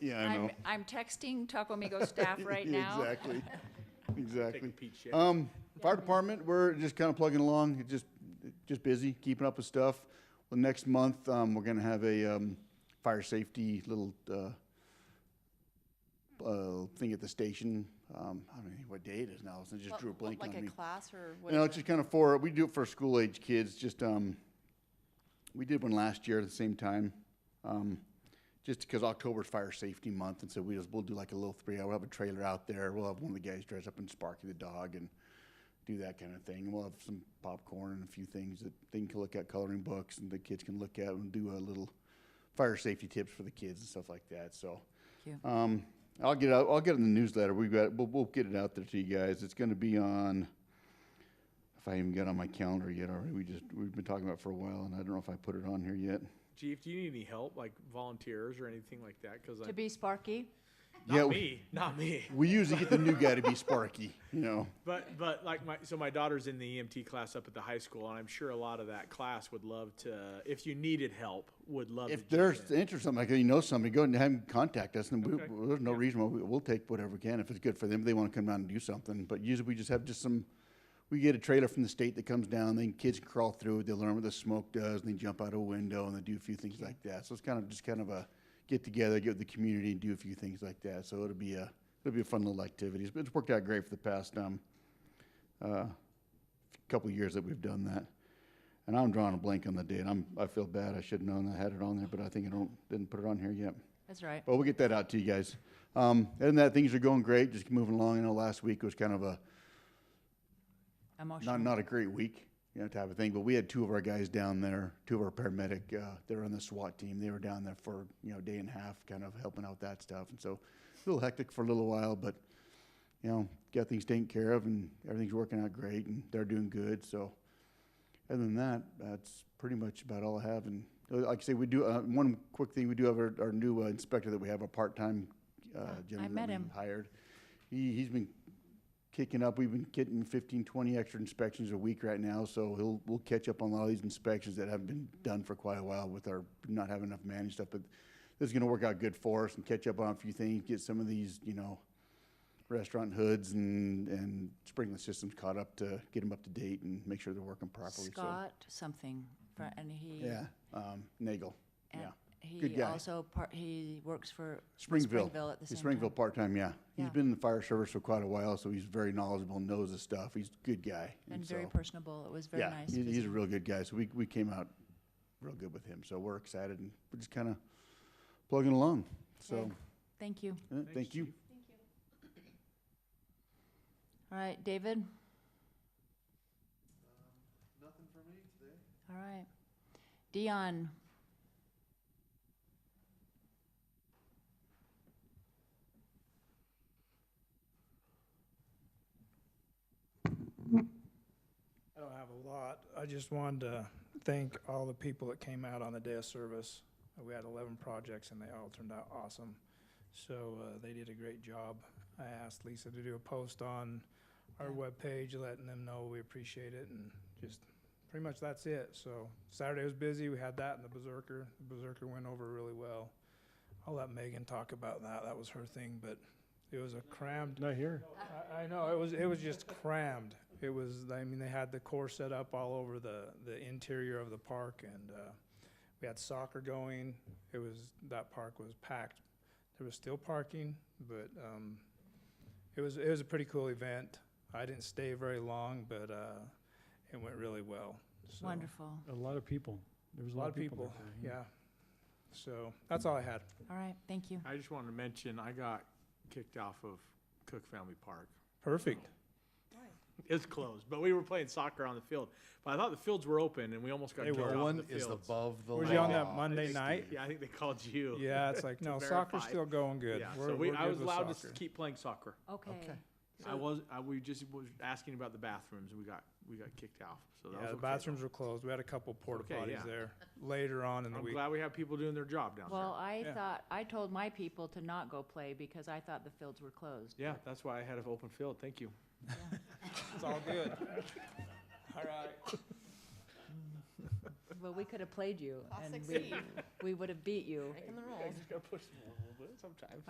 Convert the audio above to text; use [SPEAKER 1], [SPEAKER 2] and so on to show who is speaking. [SPEAKER 1] Yeah, I know.
[SPEAKER 2] I'm, I'm texting Tacomigo staff right now.
[SPEAKER 1] Exactly,
[SPEAKER 3] Take a
[SPEAKER 1] exactly.
[SPEAKER 3] peek, Shay.
[SPEAKER 1] Um, fire department, we're just kind of plugging along, It's just, just busy, keeping up with stuff. Well, next month, um, we're gonna have a, um, fire safety little, uh, uh, thing at the station. Um, I don't know what day it is now, so I just
[SPEAKER 4] What-
[SPEAKER 1] drew a
[SPEAKER 4] what-
[SPEAKER 1] blank on me.
[SPEAKER 4] Like a class or what?
[SPEAKER 1] You know,
[SPEAKER 4] is
[SPEAKER 1] it's
[SPEAKER 4] it?
[SPEAKER 1] just kind of for, we do it for school age kids, just, um, we did one last year at the same time. Um, just because October's fire safety month, and so we just, we'll do like a little three, hour. we'll have a trailer out there, we'll have one of the guys dress up in Sparky the dog and do that kind of thing, and we'll have some popcorn and a few things that they can look at coloring books and the kids can look at and do a little fire safety tips for the kids and stuff like that, so.
[SPEAKER 2] Cute.
[SPEAKER 1] Um, I'll get out, I'll get it in the newsletter, we've got, we'll, we'll get it out there to you guys, it's gonna be on, if I even got on my calendar yet already, we just, we've been talking about it for a while, and I don't know if I put it on here yet.
[SPEAKER 3] Chief, do you need any help, like volunteers or anything like that? Because
[SPEAKER 2] To
[SPEAKER 3] not
[SPEAKER 2] be Sparky,
[SPEAKER 1] yeah, we-
[SPEAKER 3] me, not me.
[SPEAKER 1] We usually get the new guy to be Sparky, you know.
[SPEAKER 3] But but like my so my daughter's in the EMT class up at the high school, and I'm sure a lot of that class would love to. If you needed help, would love
[SPEAKER 1] If
[SPEAKER 3] to
[SPEAKER 1] there's
[SPEAKER 3] jump in.
[SPEAKER 1] interest, in something like that, you know somebody, go and have them contact us, and we,
[SPEAKER 3] Okay.
[SPEAKER 1] we- there's no reason why we, we'll take whatever we can if it's good for them. If they want to come down and do something, but usually we just have just some. We get a trailer from the state that comes down, then kids crawl through. it, They learn what the smoke does, and they jump out a window, and they do a few things like that. So it's kind of just kind of a get together, get with the community, and do a few things like that. So it'll be a it'll be a fun little activities. But it's worked out great for the past um, uh, couple of years that we've done that. And I'm drawing a blank on the date. I'm, I feel bad. I should have known I had it on there, but I think I don't, didn't put it on here yet.
[SPEAKER 2] that's right.
[SPEAKER 1] But we'll get that out to you guys. Um, other than that, things are going great. Just moving along. I know last week was kind of a,
[SPEAKER 2] Emotional.
[SPEAKER 1] not, not a great week, you know, type of thing. But we had two of our guys down there, two of our paramedic, uh, they were on the SWAT team. They were down there for, you know, day and a half, kind of helping out that stuff. And so a little hectic for a little while, but, you know, got things taken care of and everything's working out great and they're doing good. So other than that, that's pretty much about all I have. And uh, like I say, we do, uh, one quick thing, we do have our, our new uh, inspector that we have, a part-time, uh,
[SPEAKER 2] Yeah, I
[SPEAKER 1] gentleman
[SPEAKER 2] met
[SPEAKER 1] that we
[SPEAKER 2] him.
[SPEAKER 1] hired. He, he's been kicking up. We've been getting 15, 20 extra inspections a week right now, so he'll, we'll catch up on a lot of these inspections that haven't been done for quite a while with our not having enough managed stuff, but this is gonna work out good for us and catch up on a few things, get some of these, you know, restaurant hoods and, and sprinkler systems caught up to get them up to date and make sure they're working properly, so. Mm.
[SPEAKER 2] Scott something, fr- and he.
[SPEAKER 1] Yeah, um, Nagel,
[SPEAKER 2] and
[SPEAKER 1] yeah. Good
[SPEAKER 2] He
[SPEAKER 1] guy.
[SPEAKER 2] also, par- he works for
[SPEAKER 1] Springville.
[SPEAKER 2] Springville at the
[SPEAKER 1] He's
[SPEAKER 2] same time.
[SPEAKER 1] Springville part-time, yeah. He's
[SPEAKER 2] Yeah.
[SPEAKER 1] been in the fire service for quite a while, so he's very knowledgeable, knows the stuff. He's a good guy.
[SPEAKER 2] And very
[SPEAKER 1] so-
[SPEAKER 2] personable. It was very
[SPEAKER 1] yeah,
[SPEAKER 2] nice.
[SPEAKER 1] he's, he's a
[SPEAKER 2] visiting.
[SPEAKER 1] real good guy. So we, we came out real good with him. So we're excited and we're just kind of plugging along. So
[SPEAKER 2] Okay. Thank you.
[SPEAKER 1] uh, thank you.
[SPEAKER 2] All right, David? Nothing for me today. All right. Dion?
[SPEAKER 5] I don't have a lot. I just wanted to thank all the people that came out on the day of service. We had 11 projects and they all turned out awesome. So uh, they did a great job. I asked Lisa to do a post on our webpage letting them know we appreciate it and just pretty much that's it. So Saturday was busy. We had that and the Berserker. The Berserker went over really well. I'll let Megan talk about that. That was her thing, but it was a crammed
[SPEAKER 6] Not here.
[SPEAKER 5] I, I know, it was, it was just crammed. It was, I mean, they had the core set up all over the, the interior of the park and, uh, we had soccer going. It was, that park was packed. There was still parking, but, um, it was, it was a pretty cool event. I didn't stay very long, but, uh, it went really well. So, oh.
[SPEAKER 2] Wonderful.
[SPEAKER 6] A lot of people. There was
[SPEAKER 5] A lot of people,
[SPEAKER 6] that day,
[SPEAKER 5] yeah. So, that's all I had.
[SPEAKER 2] All right, thank you.
[SPEAKER 3] I just wanted to mention I got kicked off of Cook Family Park.
[SPEAKER 5] Perfect.
[SPEAKER 3] It's closed, but we were playing soccer on the field. But I thought the fields were open, and we almost got
[SPEAKER 5] They
[SPEAKER 3] kicked
[SPEAKER 5] were.
[SPEAKER 3] off
[SPEAKER 5] No
[SPEAKER 7] One
[SPEAKER 3] the
[SPEAKER 7] is
[SPEAKER 3] fields.
[SPEAKER 7] above the
[SPEAKER 5] Were
[SPEAKER 7] line.
[SPEAKER 5] you on
[SPEAKER 3] Oh,
[SPEAKER 5] that Monday
[SPEAKER 3] they-
[SPEAKER 5] night?
[SPEAKER 3] Yeah, I think they called you.
[SPEAKER 5] Yeah, it's like,
[SPEAKER 3] To
[SPEAKER 5] no, soccer's
[SPEAKER 3] verify.
[SPEAKER 5] still going good.
[SPEAKER 3] Yeah,
[SPEAKER 5] We're-
[SPEAKER 3] so we,
[SPEAKER 5] we're
[SPEAKER 3] I
[SPEAKER 5] good
[SPEAKER 3] was
[SPEAKER 5] with
[SPEAKER 3] allowed to
[SPEAKER 5] soccer.
[SPEAKER 3] s- keep playing soccer.
[SPEAKER 2] Okay.
[SPEAKER 3] I was, I, we just was asking about the bathrooms, and we got, we got kicked off, so that was
[SPEAKER 5] Yeah, the
[SPEAKER 3] okay,
[SPEAKER 5] bathrooms were closed. We had a couple porta
[SPEAKER 3] Okay, yeah.
[SPEAKER 5] potties there later on in
[SPEAKER 3] though.
[SPEAKER 5] the
[SPEAKER 3] I'm
[SPEAKER 5] week.
[SPEAKER 3] glad we have people doing their job down
[SPEAKER 2] Well,
[SPEAKER 3] there.
[SPEAKER 2] I
[SPEAKER 5] Yeah.
[SPEAKER 2] thought, I told my people to not go play because I thought the fields were closed.
[SPEAKER 3] Yeah, that's why I had an open field, thank you.
[SPEAKER 5] It's all good. All right.
[SPEAKER 2] Well, we could have played you
[SPEAKER 4] I'll
[SPEAKER 2] and we,
[SPEAKER 4] succeed.
[SPEAKER 2] we would have beat you.
[SPEAKER 4] Breaking the rules.
[SPEAKER 3] just gotta push Well, sometimes.